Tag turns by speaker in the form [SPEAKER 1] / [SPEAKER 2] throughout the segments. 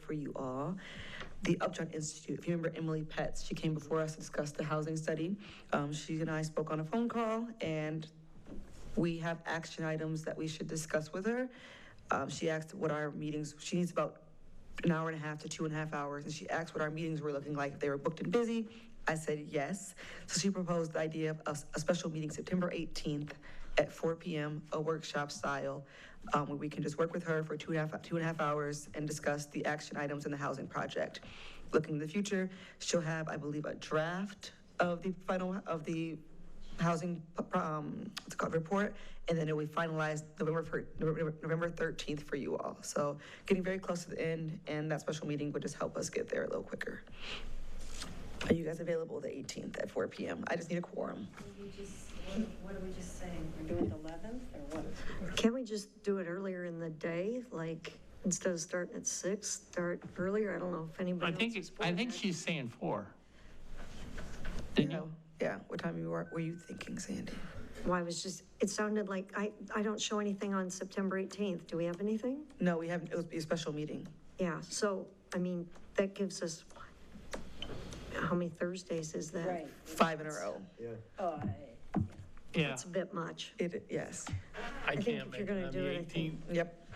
[SPEAKER 1] for you all. The Upjohn Institute, if you remember Emily Pets, she came before us to discuss the housing study. Um, She and I spoke on a phone call, and we have action items that we should discuss with her. Um, She asked what our meetings, she needs about an hour and a half to two and a half hours, and she asked what our meetings were looking like, if they were booked and busy. I said yes. So she proposed the idea of a, a special meeting September 18th at 4 PM, a workshop style, um, where we can just work with her for two and a half, two and a half hours and discuss the action items in the housing project. Looking to the future, she'll have, I believe, a draft of the final, of the housing, um, what's it called, report, and then we finalized November, fir- November November 13th for you all. So getting very close to the end, and that special meeting would just help us get there a little quicker. Are you guys available the 18th at 4 PM? I just need a quorum.
[SPEAKER 2] Will you just- What what are we just saying? We're doing the 11th or what?
[SPEAKER 3] Can't we just do it earlier in the day? Like, instead of starting at six, start earlier? I don't know if
[SPEAKER 4] I
[SPEAKER 3] anybody else is
[SPEAKER 4] think, it's- I
[SPEAKER 3] bored.
[SPEAKER 4] think she's saying four. Didn't you?
[SPEAKER 1] Yeah, what time you were, were you thinking, Sandy?
[SPEAKER 3] Well, I was just, it sounded like, I, I don't show anything on September 18th. Do we have anything?
[SPEAKER 1] No, we haven't, it was a special meeting.
[SPEAKER 3] Yeah, so, I mean, that gives us, how many Thursdays is that?
[SPEAKER 2] Right.
[SPEAKER 1] Five in a row.
[SPEAKER 2] Oh, I-
[SPEAKER 4] Yeah,
[SPEAKER 3] It's a bit much.
[SPEAKER 1] It, yes,
[SPEAKER 4] I
[SPEAKER 3] think
[SPEAKER 4] can't
[SPEAKER 3] if
[SPEAKER 4] make
[SPEAKER 3] you're
[SPEAKER 4] it
[SPEAKER 3] gonna
[SPEAKER 4] on
[SPEAKER 3] do
[SPEAKER 4] the
[SPEAKER 3] it, I think-
[SPEAKER 4] 18th.
[SPEAKER 1] yep.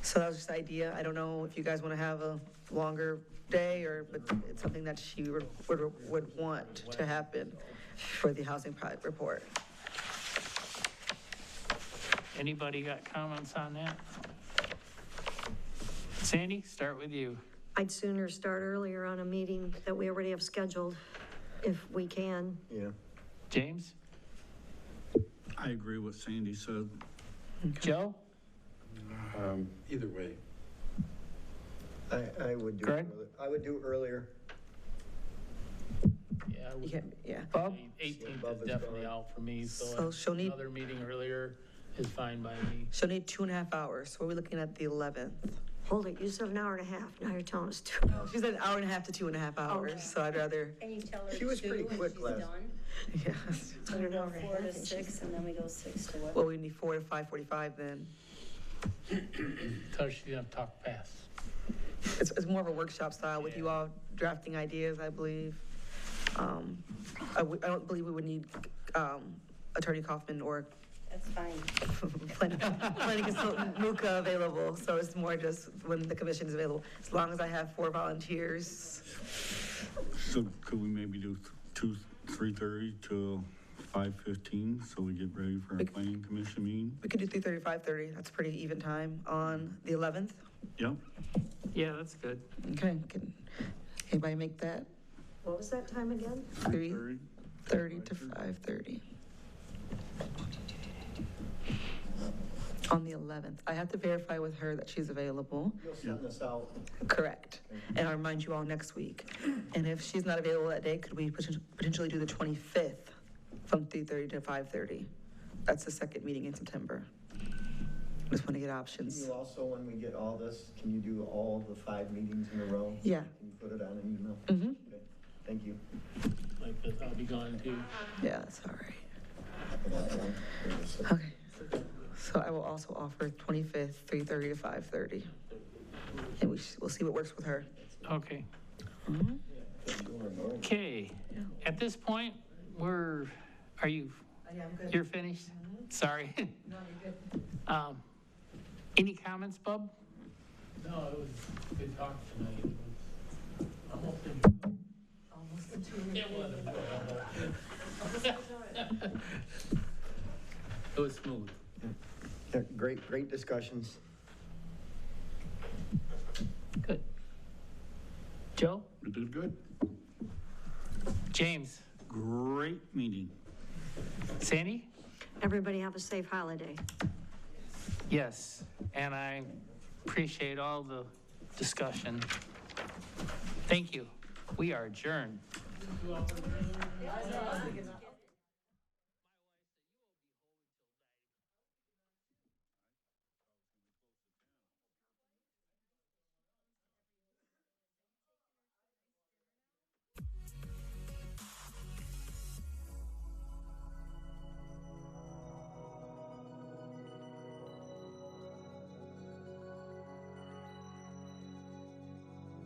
[SPEAKER 1] So that was just the idea. I don't know if you guys want to have a longer day or, but it's something that she would, would, would want to happen for the housing pro- report.
[SPEAKER 4] Anybody got comments on that? Sandy, start with you.
[SPEAKER 3] I'd sooner start earlier on a meeting that we already have scheduled, if we can.
[SPEAKER 5] Yeah.
[SPEAKER 4] James?
[SPEAKER 6] I agree with Sandy said.
[SPEAKER 4] Joe?
[SPEAKER 6] um,
[SPEAKER 7] Either way,
[SPEAKER 5] I, I would do,
[SPEAKER 4] Greg?
[SPEAKER 5] earli- I would do earlier.
[SPEAKER 7] yeah,
[SPEAKER 1] You can't, yeah.
[SPEAKER 4] Bob?
[SPEAKER 7] eighteenth
[SPEAKER 5] Above
[SPEAKER 7] is
[SPEAKER 5] is
[SPEAKER 7] definitely
[SPEAKER 5] going.
[SPEAKER 7] out for me,
[SPEAKER 1] So
[SPEAKER 7] so
[SPEAKER 1] she'll need-
[SPEAKER 7] another meeting earlier is fine by me.
[SPEAKER 1] She'll need two and a half hours. So we're looking at the 11th.
[SPEAKER 3] Hold it, you said an hour and a half, now you're telling us two.
[SPEAKER 1] She said an hour and a half to two and a half hours. So I'd rather,
[SPEAKER 2] Can you tell her
[SPEAKER 5] She was pretty
[SPEAKER 2] two and
[SPEAKER 5] quick
[SPEAKER 2] she's
[SPEAKER 5] last-
[SPEAKER 2] done?
[SPEAKER 1] yes.
[SPEAKER 2] So we go
[SPEAKER 3] Hour and a
[SPEAKER 2] four to
[SPEAKER 3] half and she's-
[SPEAKER 2] six and then we go six to what?
[SPEAKER 1] Well, we need four to 5:45 then.
[SPEAKER 7] Tell her she's gonna talk fast.
[SPEAKER 1] It's, it's more of a workshop style with you
[SPEAKER 7] Yeah.
[SPEAKER 1] all drafting ideas, I believe. Um, I, w- I don't believe we would need, um, Attorney Kaufman or
[SPEAKER 2] That's fine.
[SPEAKER 1] planning, planning consultant Luca available. So it's more just when the commission is available, as long as I have four volunteers.
[SPEAKER 6] So could we maybe do th- two, three thirty to five fifteen, so we get ready for our
[SPEAKER 1] Bec-
[SPEAKER 6] planning commission meeting?
[SPEAKER 1] We could do 3:30, 5:30. That's pretty even time on the 11th.
[SPEAKER 6] Yep,
[SPEAKER 4] Yeah, that's good.
[SPEAKER 1] Okay, can, anybody make that?
[SPEAKER 3] What was that time again?
[SPEAKER 1] Three.
[SPEAKER 6] three thirty.
[SPEAKER 1] 30 to 5:30. On the 11th. I have to verify with her that she's available.
[SPEAKER 5] You'll send this out.
[SPEAKER 1] Correct. And I'll remind you all next week. And if she's not available that day, could we poten- potentially do the 25th from 3:30 to 5:30? That's the second meeting in September. Just want to get options.
[SPEAKER 5] You also, when we get all this, can you do all the five meetings in a row?
[SPEAKER 1] Yeah.
[SPEAKER 5] Can you put it on an email?
[SPEAKER 1] Mhm.
[SPEAKER 5] Okay. Thank you.
[SPEAKER 7] Like, that I'll be gone too.
[SPEAKER 1] Yeah, that's all right.
[SPEAKER 5] And that one, there was a-
[SPEAKER 1] Okay. So I will also offer 25th, 3:30 to 5:30. And we, sh- we'll see what works with her.
[SPEAKER 4] Okay.
[SPEAKER 5] Going over.
[SPEAKER 4] Okay, at this point, we're, are you, you're finished? Sorry. Um, Any comments, Bub?
[SPEAKER 7] No, it was good talk tonight. I'm hoping. It was smooth.
[SPEAKER 5] Yeah, Great, great discussions.
[SPEAKER 4] Good. Joe?
[SPEAKER 6] We did good.
[SPEAKER 4] James?
[SPEAKER 6] Great meeting.
[SPEAKER 4] Sandy?
[SPEAKER 3] Everybody have a safe holiday.
[SPEAKER 4] Yes, and I appreciate all the discussion. Thank you. We are adjourned.